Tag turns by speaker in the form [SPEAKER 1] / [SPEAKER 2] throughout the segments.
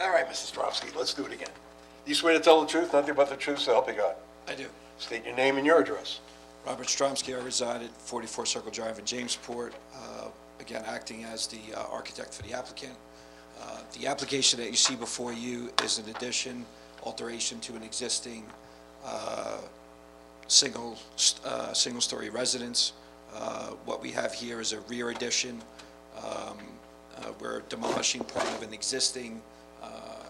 [SPEAKER 1] All right, Mr. Stropski, let's do it again. You swear to tell the truth, nothing but the truth, so help you God?
[SPEAKER 2] I do.
[SPEAKER 1] State your name and your address.
[SPEAKER 2] Robert Stromsky, I reside at 44 Circle Drive in Jamesport, uh, again, acting as the uh, architect for the applicant. Uh, The application that you see before you is an addition, alteration to an existing uh, single, st- uh, single-story residence. Uh, What we have here is a rear addition. Um, uh, We're demolishing part of an existing uh,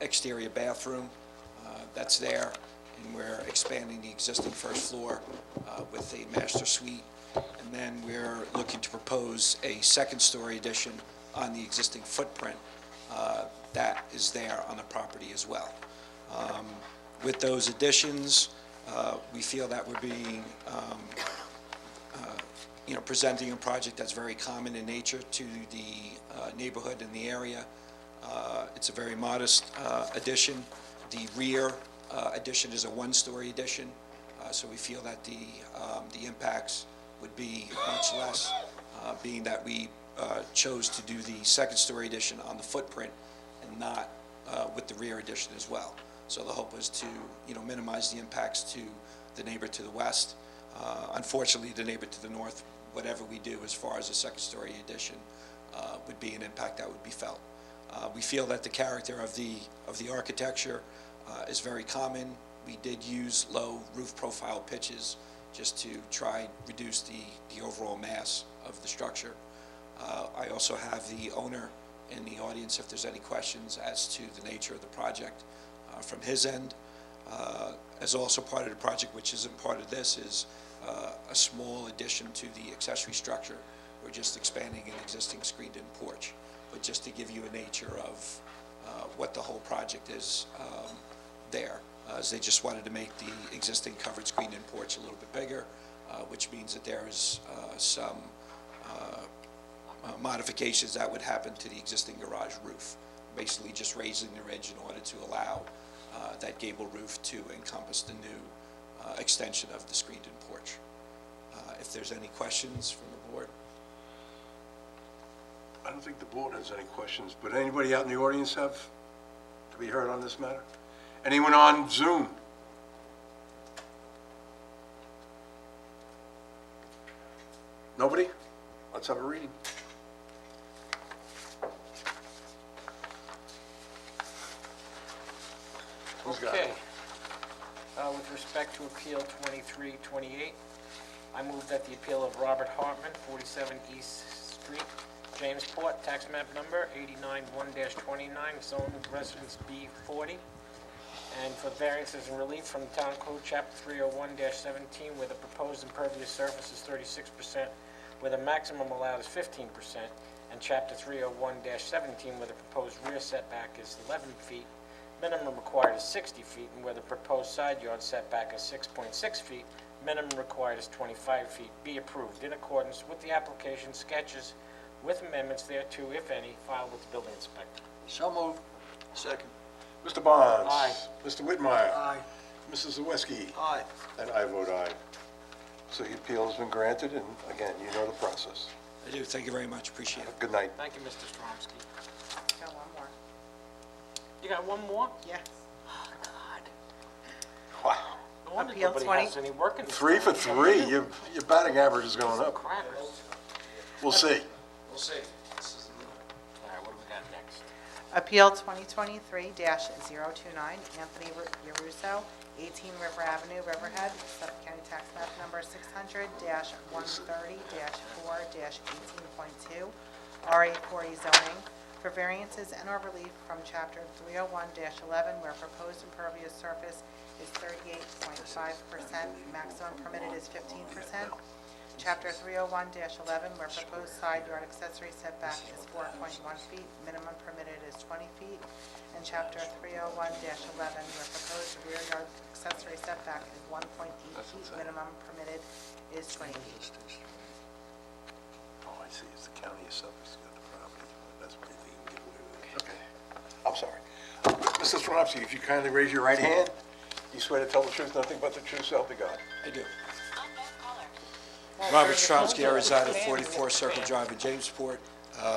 [SPEAKER 2] exterior bathroom uh, that's there, and we're expanding the existing first floor uh, with a master suite. And then we're looking to propose a second-story addition on the existing footprint uh, that is there on the property as well. Um, With those additions, uh, we feel that we're being um, uh, you know, presenting a project that's very common in nature to the uh, neighborhood and the area. Uh, It's a very modest uh, addition. The rear uh, addition is a one-story addition, uh, so we feel that the, um, the impacts would be much less, uh, being that we uh, chose to do the second-story addition on the footprint and not uh, with the rear addition as well. So the hope was to, you know, minimize the impacts to the neighbor to the west. Uh, Unfortunately, the neighbor to the north, whatever we do as far as a second-story addition, uh, would be an impact that would be felt. Uh, We feel that the character of the, of the architecture uh, is very common. We did use low roof profile pitches just to try and reduce the, the overall mass of the structure. Uh, I also have the owner in the audience if there's any questions as to the nature of the project uh, from his end. Uh, As also part of the project, which isn't part of this, is uh, a small addition to the accessory structure. We're just expanding an existing screened-in porch. But just to give you a nature of uh, what the whole project is um, there, uh, is they just wanted to make the existing covered screened-in porch a little bit bigger, uh, which means that there is uh, some uh, modifications that would happen to the existing garage roof, basically just raising the ridge in order to allow uh, that gable roof to encompass the new uh, extension of the screened-in porch. Uh, If there's any questions from the board?
[SPEAKER 1] I don't think the board has any questions, but anybody out in the audience have to be heard on this matter? Anyone on Zoom? Nobody? Let's have a reading. Who's got it?
[SPEAKER 3] Okay. Uh, With respect to Appeal 2328, I move that the appeal of Robert Hartman, 47 East Street, Jamesport, tax map number 891-29, zone residence B40, and for variances and relief from Town Code Chapter 301-17, where the proposed impervious surface is 36%, where the maximum allowed is 15%, and Chapter 301-17, where the proposed rear setback is 11 feet, minimum required is 60 feet, and where the proposed side yard setback is 6.6 feet, minimum required is 25 feet, be approved in accordance with the application sketches with amendments thereto, if any, filed with the building inspector.
[SPEAKER 4] So moved. Second.
[SPEAKER 1] Mr. Bonds?
[SPEAKER 3] Aye.
[SPEAKER 1] Mr. Whitmire?
[SPEAKER 4] Aye.
[SPEAKER 1] Mrs. Zawiski?
[SPEAKER 4] Aye.
[SPEAKER 1] And I vote aye. So the appeal has been granted, and again, you know the process.
[SPEAKER 2] I do, thank you very much, appreciate it.
[SPEAKER 1] Good night.
[SPEAKER 3] Thank you, Mr. Stromsky.
[SPEAKER 5] Got one more.
[SPEAKER 3] You got one more?
[SPEAKER 5] Yes.
[SPEAKER 1] Wow.
[SPEAKER 3] No wonder
[SPEAKER 5] Appeal
[SPEAKER 3] nobody
[SPEAKER 5] 20.
[SPEAKER 3] has any work in this
[SPEAKER 1] Three for
[SPEAKER 3] town.
[SPEAKER 1] three, your, your batting average is going up.
[SPEAKER 3] Crackers. All
[SPEAKER 1] We'll see.
[SPEAKER 2] We'll see. This is the-
[SPEAKER 3] right, what do we got next?
[SPEAKER 5] Appeal 2023-029, Anthony Ru- Yaruso, 18 River Avenue, Riverhead, Suffolk County Tax Map Number 600-130-4-18.2, RA40 zoning, for variances and or relief from Chapter 301-11, where proposed impervious surface is 38.5%, maximum permitted is 15%, Chapter 301-11, where proposed side yard accessory setback is 4.1 feet, minimum permitted is 20 feet, and Chapter 301-11, where proposed rear yard accessory setback is 1.8 feet, minimum permitted is 20 feet.
[SPEAKER 1] Oh, I see, it's the county of Suffolk's got the property, that's why they can get away with it. Okay, I'm sorry. Mr. Swansky, if you kindly raise your right hand, you swear to tell the truth, nothing but the truth, so help you God.
[SPEAKER 2] I do. Robert Stromsky, I reside at 44 Circle Drive in Uh, Jamesport,